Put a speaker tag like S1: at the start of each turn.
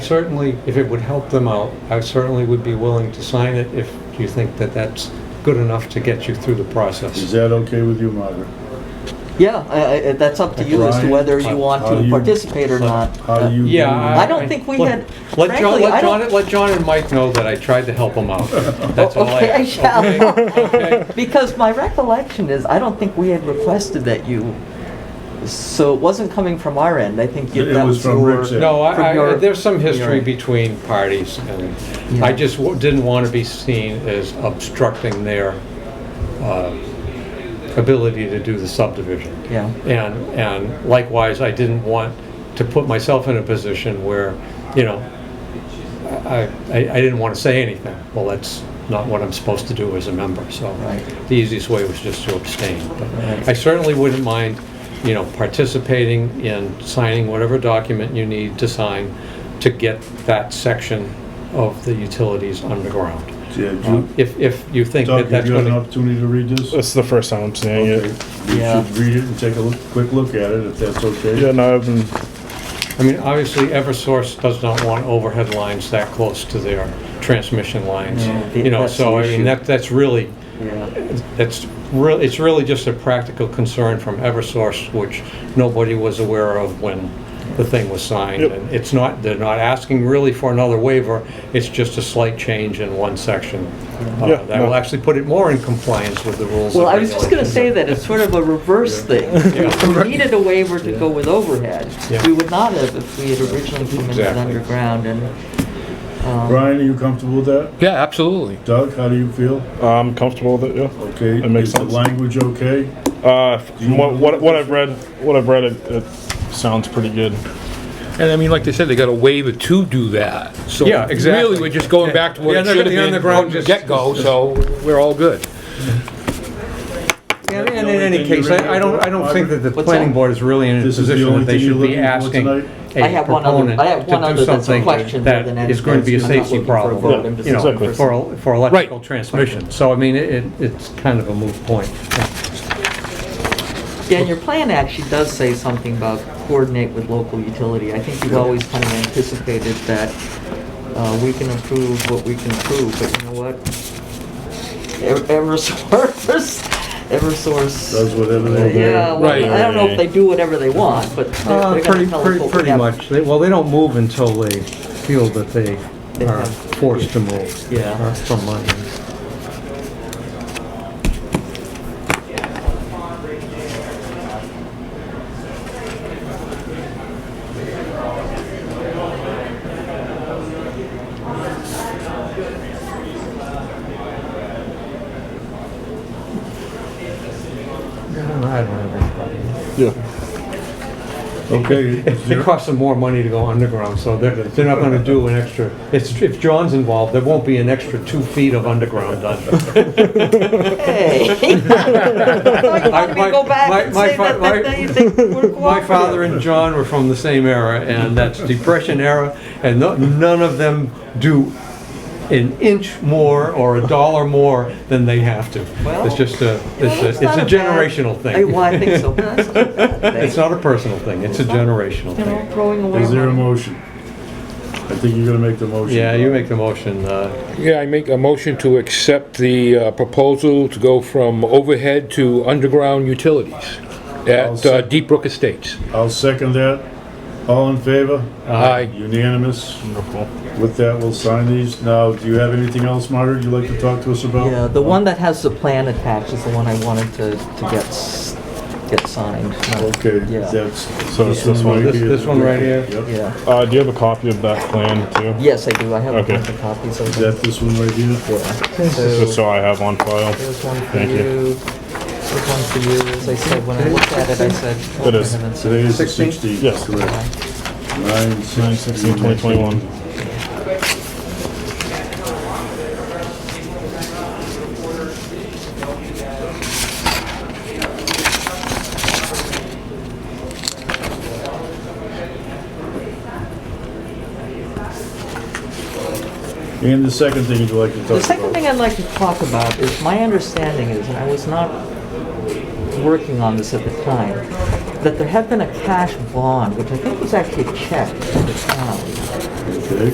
S1: certainly, if it would help them out, I certainly would be willing to sign it if you think that that's good enough to get you through the
S2: Is
S1: process.
S2: that okay with you, Margaret?
S3: Yeah, I, I, that's up to you as to whether you want
S2: How do
S3: to
S2: you-
S3: participate or not.
S2: How do you?
S1: Yeah.
S3: I don't think we had-
S1: Mm-hmm. Let John,
S3: frankly, I
S1: let John,
S3: don't-
S1: let John and Mike know that I tried to help them out. That's all I
S3: Uh, Okay, I
S1: ask.
S3: shall.
S1: Okay? Okay?
S3: Because my recollection is, I don't think we had requested that you, so it wasn't coming from our end, I think you-
S2: It
S3: that
S2: was
S3: was
S2: from
S3: your.
S2: Rick's end.
S1: No, I-
S3: from
S1: I,
S3: your-
S1: there's some
S3: from your
S1: history
S3: end.
S1: between parties, and
S3: Yeah.
S1: I just w- didn't want to be seen as obstructing their uh, ability to do the subdivision.
S3: Yeah.
S1: And, and likewise, I didn't want to put myself in a position where, you know, I, I I didn't want to say anything. Well, that's not what I'm supposed to do as a member, so.
S3: Right.
S1: The easiest way was just to abstain. But
S3: Right.
S1: I certainly wouldn't mind, you know, participating in signing whatever document you need to sign to get that section of the utilities underground.
S2: Yeah,
S1: Uh,
S2: you-
S1: If, if you think
S2: Doug,
S1: that
S2: have
S1: that's
S2: you had
S1: going
S2: an
S1: to.
S2: opportunity to read this?
S4: It's the first time I'm seeing
S2: Okay.
S4: it.
S2: You
S3: Yeah.
S2: should read it and take a look, quick look at it, if that's okay.
S4: Yeah, no, I've been,
S1: I mean, obviously, Eversource does not want overhead lines that close to their transmission lines.
S3: No, the-
S1: You know,
S3: that's
S1: so
S3: the
S1: I mean,
S3: issue.
S1: that, that's really,
S3: Yeah,
S1: that's really, it's really just a practical concern from Eversource, which nobody was aware of when the thing was signed.
S4: Yep.
S1: And it's not, they're not asking really for another waiver, it's just a slight change in one section. uh,
S4: Yeah,
S1: That will
S4: no.
S1: actually put it more in compliance with the rules.
S3: well,
S1: and
S3: I was just gonna say
S1: regulations.
S3: that it's sort of a reverse thing. If we needed a waiver to go with overhead,
S1: Yeah.
S3: we would not have if we had originally come in with
S1: Exactly.
S3: underground and, um,
S2: Brian, are you comfortable with that?
S5: Yeah, absolutely.
S2: Doug, how do you feel?
S4: uh, I'm comfortable with it, yeah.
S2: Okay.
S4: That makes
S2: Is
S4: sense.
S2: the language okay?
S4: Uh,
S2: you
S4: from what,
S2: wanna
S4: what,
S2: look
S4: what
S2: at
S4: I've read, what I've read, it, it sounds pretty good.
S5: And I mean, like they said, they got a waiver to do that. So
S1: Yeah, exactly.
S5: Really, we're just going back to what
S1: Yeah,
S5: it
S1: no,
S5: should have
S1: the
S5: been
S1: underground
S5: from the
S1: just-
S5: get-go, so we're all good.
S1: Yeah,
S2: The
S1: And
S2: only
S1: in any
S2: thing you
S1: case,
S2: really
S1: I I don't, I don't
S2: want,
S1: think that the
S3: What's
S1: planning
S3: that?
S1: board is really in a
S2: This is the
S1: position
S2: only
S1: that they
S2: thing you're
S1: should be
S2: looking for
S1: asking
S2: tonight?
S3: I
S1: a
S3: have one other-
S1: proponent
S3: I have one
S1: to
S3: other
S1: do
S3: that's a
S1: something
S3: question
S1: that
S3: more than
S1: is going to be a
S3: anything. I'm not
S1: safety
S3: looking for a vote,
S1: problem,
S3: I'm just
S1: you
S4: looking
S1: know,
S4: for
S1: for, for electrical
S5: Right.
S1: transmission. So I mean, it, it's kind of a moot point.
S3: yeah, and your plan actually does say something about coordinate with local utility. I think you've always kind of anticipated that, uh, we can approve what we can approve, but you know what? Ev- Eversource, Eversource. uh,
S2: Does whatever they want.
S3: Yeah, well,
S5: Right.
S3: I don't know if they do whatever they want, but
S1: Uh,
S3: they're they're gonna
S1: Pretty,
S3: tell us
S1: pretty,
S3: what we
S1: pretty
S3: have.
S1: much. They- Well, they don't move until they feel that they
S3: They
S1: are
S3: have-
S1: forced to move.
S3: Yeah.
S1: uh, From money. No, I don't have any problem.
S4: Yeah.
S2: Okay. is
S1: It
S2: there-
S1: costs them more money to go underground, so they're, they're not gonna do an extra, it's, if John's involved, there won't be an extra two feet of underground done.
S3: Hey. I thought you wanted me
S1: My-
S3: to go back and
S1: my- my
S3: say
S1: fa-
S3: that, that
S1: my-
S3: that you think we're
S1: My father
S3: cooperative.
S1: and John were from the same era, and that's Depression era, and no- none of them do an inch more or a dollar more than they have to.
S3: Well,
S1: It's just a, it's a, it's
S3: not
S1: a
S3: a bad-
S1: generational thing.
S3: I- well, I think so. But that's not a bad
S1: It's
S3: thing.
S1: not a personal thing, it's a generational
S3: You know,
S1: thing.
S3: throwing away.
S2: Is there a
S3: money.
S2: motion? I think you're gonna make the motion.
S1: Yeah, you
S2: Bob.
S1: make the motion, uh,
S5: Yeah, I make a motion to accept the uh, proposal to go from overhead to underground utilities
S2: I'll
S5: at uh,
S2: sec-
S5: Deep Brook Estates.
S2: I'll second that. All in favor?
S5: Aye.
S2: Unanimous.
S4: Wonderful.
S2: With that, we'll sign these. Now, do you have anything else, Margaret, you'd like to talk to us about?
S3: Yeah, the one that has the plan attached is the one I wanted to, to get, s- get signed.
S2: Okay,
S3: Yeah.
S2: that's.
S4: So it's this one.
S2: right
S1: This-
S2: here.
S1: this one right here?
S2: Yep. Is
S3: Yeah,
S4: Uh, do you have a copy of that plan too?
S3: yes, I do, I have a
S4: Okay.
S3: bunch of copies of them.
S2: that this one right here?
S3: Yeah. So-
S4: Just so I have on file.
S3: There's one for
S4: Thank you.
S3: you, there's one for you, as I said, when I looked at it, I said, oh,
S4: It
S3: for
S4: is.
S3: heaven's sake.
S2: Today is the
S1: 16?
S2: sixteenth.
S4: Yes.
S2: Correct. Nine
S4: Nine sixteen twenty twenty-one.
S2: And the second thing you'd like to talk about?
S3: The second thing I'd like to talk about is, my understanding is, and I was not working on this at the time, that there had been a cash bond, which I think was actually a check to the town,
S2: Okay.